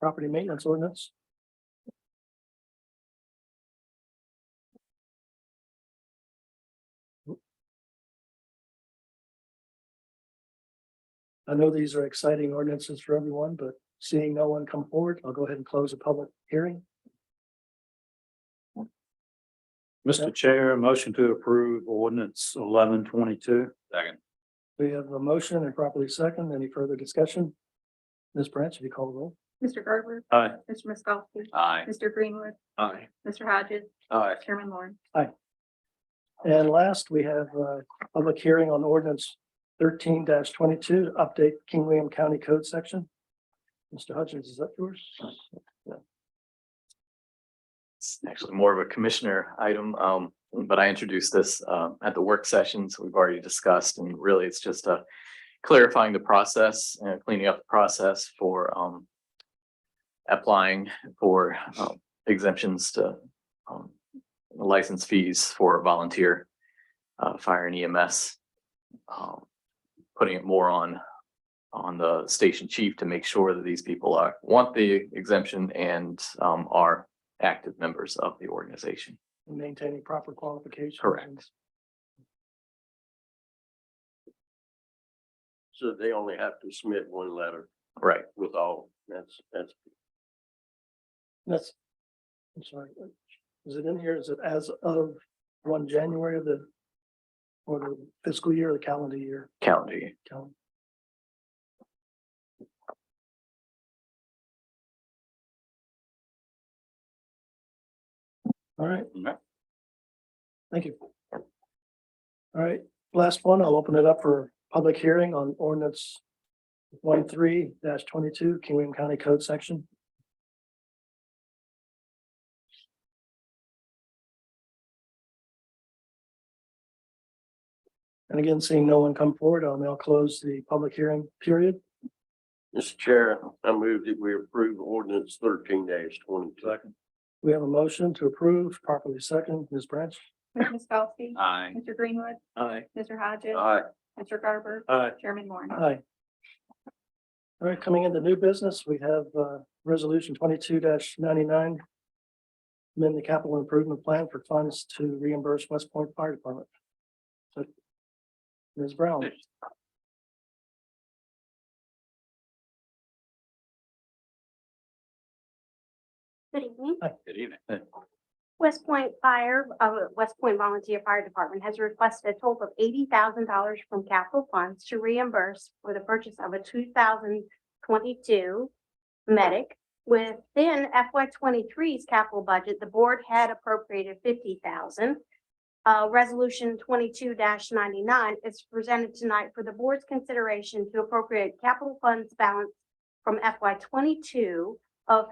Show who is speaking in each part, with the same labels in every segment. Speaker 1: property maintenance ordinance. I know these are exciting ordinances for everyone, but seeing no one come forward, I'll go ahead and close the public hearing.
Speaker 2: Mr. Chair, motion to approve ordinance eleven twenty-two. Second.
Speaker 1: We have a motion and properly second. Any further discussion? Ms. Branch, if you call the roll.
Speaker 3: Mr. Garber.
Speaker 2: Aye.
Speaker 3: Mr. Miskowski.
Speaker 2: Aye.
Speaker 3: Mr. Greenwood.
Speaker 2: Aye.
Speaker 3: Mr. Hodges.
Speaker 2: Aye.
Speaker 3: Chairman Lawrence.
Speaker 1: And last, we have a public hearing on ordinance thirteen twenty-two, to update King William County Code section. Mr. Hutchins, is that yours?
Speaker 4: It's actually more of a commissioner item, um, but I introduced this, um, at the work sessions we've already discussed, and really it's just a clarifying the process and cleaning up the process for, um, applying for um, exemptions to, um, license fees for volunteer, uh, fire and EMS. um, Putting it more on, on the station chief to make sure that these people are, want the exemption and, um, are active members of the organization.
Speaker 1: Maintaining proper qualifications.
Speaker 4: Correct.
Speaker 5: So they only have to submit one letter
Speaker 4: Right.
Speaker 5: with all, that's, that's,
Speaker 1: That's, I'm sorry, is it in here? Is it as of one January of the or the fiscal year, or the calendar year?
Speaker 4: County.
Speaker 1: Cal- All right.
Speaker 2: Okay.
Speaker 1: Thank you. All right, last one, I'll open it up for public hearing on ordinance one twenty-two, King William County Code section. And again, seeing no one come forward, I'll now close the public hearing period.
Speaker 5: Mr. Chair, I move that we approve ordinance thirteen twenty-two.
Speaker 2: Second.
Speaker 1: We have a motion to approve, properly second, Ms. Branch.
Speaker 3: Mr. Miskowski.
Speaker 2: Aye.
Speaker 3: Mr. Greenwood.
Speaker 2: Aye.
Speaker 3: Mr. Hodges.
Speaker 5: Aye.
Speaker 3: Mr. Garber.
Speaker 2: Aye.
Speaker 3: Chairman Lawrence.
Speaker 1: Aye. All right, coming into new business, we have uh resolution twenty-two ninety-nine. Amend the capital improvement plan for funds to reimburse West Point Fire Department. So, Ms. Brown,
Speaker 6: Good evening.
Speaker 2: Good evening.
Speaker 6: West Point Fire, uh, West Point Volunteer Fire Department has requested a total of eighty thousand dollars from capital funds to reimburse for the purchase of a two thousand twenty-two medic. Within FY 23s capital budget, the board had appropriated fifty thousand. Uh, resolution twenty-two ninety-nine is presented tonight for the board's consideration to appropriate capital funds balance from FY twenty-two of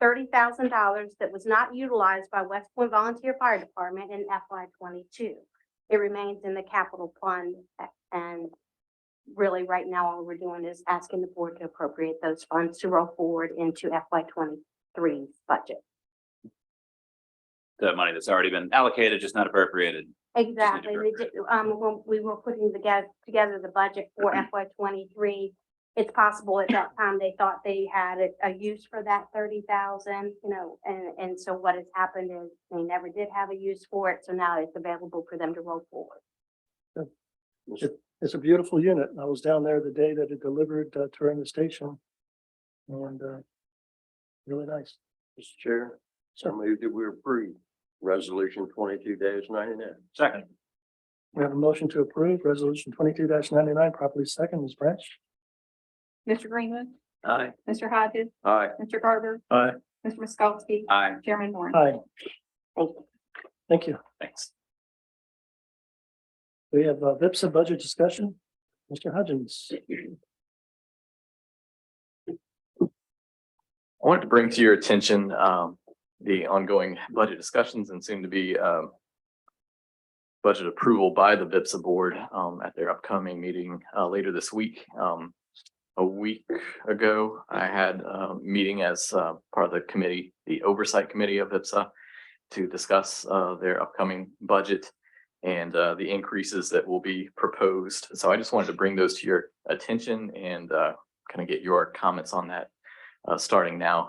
Speaker 6: thirty thousand dollars that was not utilized by West Point Volunteer Fire Department in FY twenty-two. It remains in the capital fund a- and really right now, all we're doing is asking the board to appropriate those funds to roll forward into FY 23 budget.
Speaker 2: The money that's already been allocated, just not appropriated.
Speaker 6: Exactly. We did, um, when we were putting together, together the budget for FY twenty-three, it's possible at that time they thought they had a, a use for that thirty thousand, you know, and, and so what has happened is they never did have a use for it, so now it's available for them to roll forward.
Speaker 1: it's a beautiful unit. I was down there the day that it delivered uh, touring the station. And uh, really nice.
Speaker 5: Mr. Chair, I
Speaker 1: So
Speaker 5: move that we approve resolution twenty-two ninety-nine.
Speaker 2: Second.
Speaker 1: we have a motion to approve resolution twenty-two ninety-nine, properly second, Ms. Branch.
Speaker 3: Mr. Greenwood.
Speaker 2: Aye.
Speaker 3: Mr. Hodges.
Speaker 5: Aye.
Speaker 3: Mr. Garber.
Speaker 2: Aye.
Speaker 3: Mr. Miskowski.
Speaker 2: Aye.
Speaker 3: Chairman Lawrence.
Speaker 1: Hi,
Speaker 6: Thank you.
Speaker 1: thank you.
Speaker 2: Thanks.
Speaker 1: We have a VIPSA budget discussion. Mr. Hudgens.
Speaker 4: I wanted to bring to your attention um the ongoing budget discussions and soon to be um. Budget approval by the VIPSA board um at their upcoming meeting uh later this week. Um a week ago, I had a meeting as uh part of the committee, the oversight committee of VIPSA. To discuss uh their upcoming budget and uh the increases that will be proposed. So I just wanted to bring those to your attention and uh kind of get your comments on that uh starting now.